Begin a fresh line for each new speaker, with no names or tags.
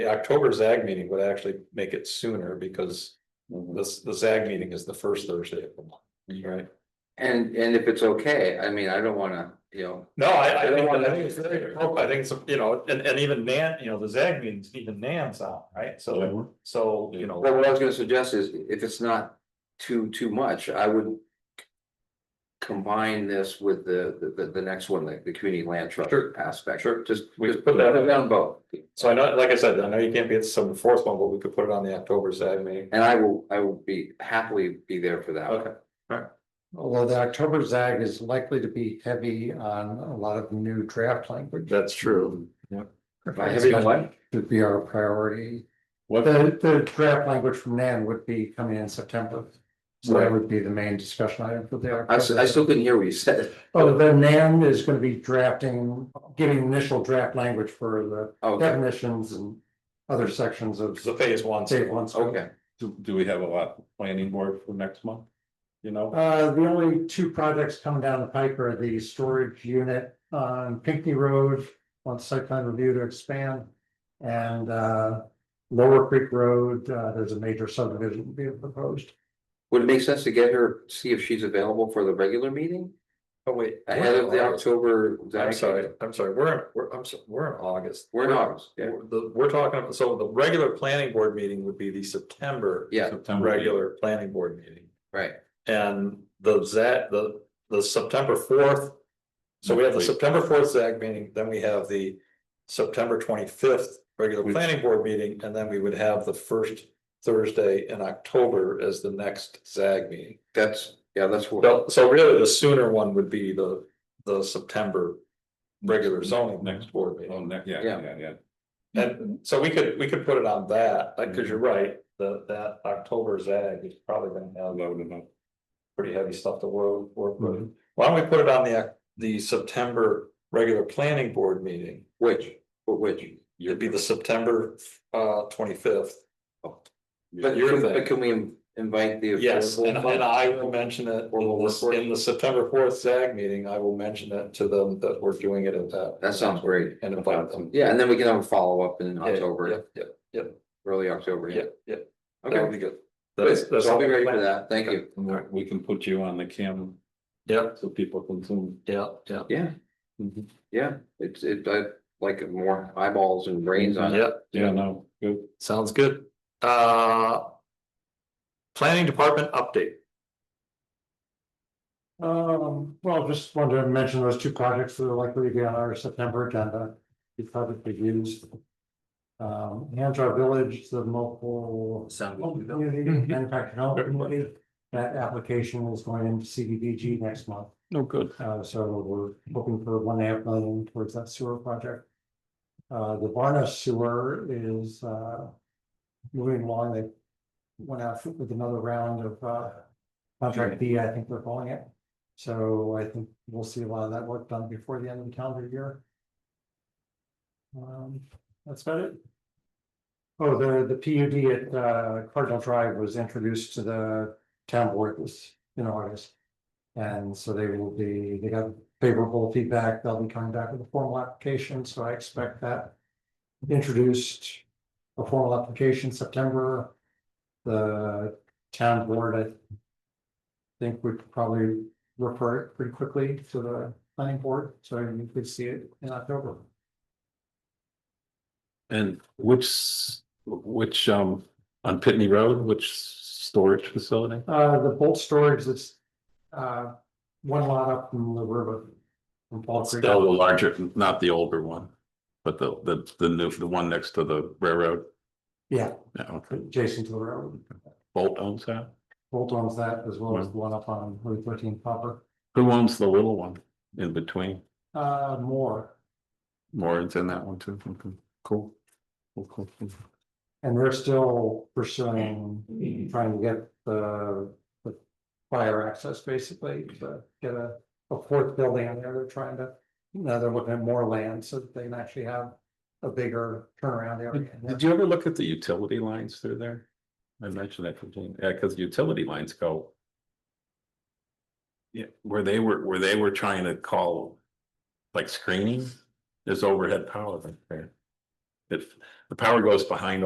The October ZAG meeting would actually make it sooner because this, the ZAG meeting is the first Thursday of the month, right?
And, and if it's okay, I mean, I don't wanna, you know,
No, I,
I
I
don't
think,
want
I
that
think it's,
to
very
be-
appropriate. I think it's, you know, and, and even Nan, you know, the ZAG meetings, even Nan's out, right? So, so, you know.
Well, what I was gonna suggest is if it's not too, too much, I would. Combine this with the, the, the next one, like the community land trust
Sure.
aspect.
Sure.
Just,
We
just
could put
put
that-
it down both.
So I know, like I said, I know you can't be at some of the fourth one, but we could put it on the October ZAG meeting.
And I will, I will be happily be there for that. one.
Okay.
Although the October ZAG is likely to be heavy on a lot of new draft language.
That's true.
By heavy on what?
Would be our priority.
What?
The, the draft language from Nan would be coming in September. So that
Right.
would be the main discussion item for the.
I, s- I still couldn't hear what you said.
Oh, then Nan is gonna be drafting, giving initial draft language for the
Okay,
definitions and other sections of.
It's the phase one.
state one scope.
okay.
Do, do we have a lot planning board for next month? You know,
Uh, the only two projects coming down the pike are the storage unit on Pinckney Road, wants site plan review to expand. And, uh, Lower Creek Road, uh, there's a major subdivision being proposed.
Would it make sense to get her, see if she's available for the regular meeting
Oh, wait.
ahead of the
we're-
October?
I'm sorry, I'm sorry, we're, we're, I'm, so- we're in August.
We're in August, yeah.
We're- The, we're talking, about- so the regular planning board meeting would be the September.
Yeah,
September.
Regular planning board meeting.
right.
And the ZAC, the, the September fourth. So we have the
Wait.
September fourth ZAC meeting, then we have the September twenty-fifth regular
Which-
planning board meeting, and then we would have the first Thursday in October as the next ZAG meeting.
That's, yeah, that's what.
So, so really the sooner one would be the, the September regular zoning
Next.
next board meeting.
Oh, ne- yeah,
Yeah.
yeah, yeah.
Mm-hmm.
And so we could, we could put it on that, like, cause you're right, the, that October ZAG is probably gonna have
Loaded up.
pretty heavy stuff to work, work
Mm-hmm.
with. Why don't we put it on the, the September regular planning board meeting?
Which, for which?
It'd be the September, uh, twenty-fifth.
But
Your
can,
thing.
but can we in- invite the?
Yes, and,
affordable
and I will mention it in this, in the September fourth ZAG meeting, I will mention it to them that we're doing it at that.
That sounds great.
And invite them.
Yeah, and then we can have a follow-up in
Yeah, Yeah,
October,
yeah,
early October,
yeah,
yeah.
yeah. That would
Okay,
be good. That's-
good.
that's
So I'll be
all
ready
planned.
for that. Thank you.
Alright.
We can put you on the cam
Yeah,
so people can zoom.
yeah, yeah. Mm-hmm.
Yeah.
Mhm.
Yeah, it's, it, I like more eyeballs and brains on it.
Yeah,
Yeah, no, good.
sounds good. Uh. Planning department update.
Um, well, just wanted to mention those two projects that are likely to be on our September agenda, be publicly used. Um, Hanjar Village, the local Well,
Sound.
community
Mhm.
manufacturing development committee, that application is going into CDBG next month,
No, good.
uh, so we're hoping for one half million towards that sewer project. Uh, the Varna sewer is, uh, moving along, they went out with another round of, uh, contract B, I think they're calling it. So I think we'll see a lot of that work done before the end of the calendar year. Um, that's about it. Oh, the, the PUD at uh, Cardinal Drive was introduced to the town board this, in August. And so they will be, they got favorable feedback, they'll be coming back with a formal application, so I expect that. Introduced a formal application September. The town board, I think would probably refer it pretty quickly to the planning board, so you could see it in October.
And which, s- which, um, on Pitney Road, which storage facility?
Uh, the bolt storage that's, uh, one lot up from the river. From Fall Creek.
Still the larger, not the older one, but the, the, the new, the one next to the railroad.
Yeah,
Yeah, okay.
adjacent to the railroad.
Bolt owns that.
Bolt owns that as well as the one up on Route thirteen proper.
Who owns the little one in between?
Uh, more,
Warren's in that one too. Okay, Cool. Cool, cool, cool.
and they're still pursuing, trying to get the, the fire access basically to get a, a fourth building in there. They're trying to, now they're looking at more land so that they can actually have a bigger turnaround area.
Did did you ever look at the utility lines through there? I mentioned that, to Jane. yeah, because utility lines go. Yeah, where they were, where they were trying to call, like screening, there's overhead power right there. if the power goes behind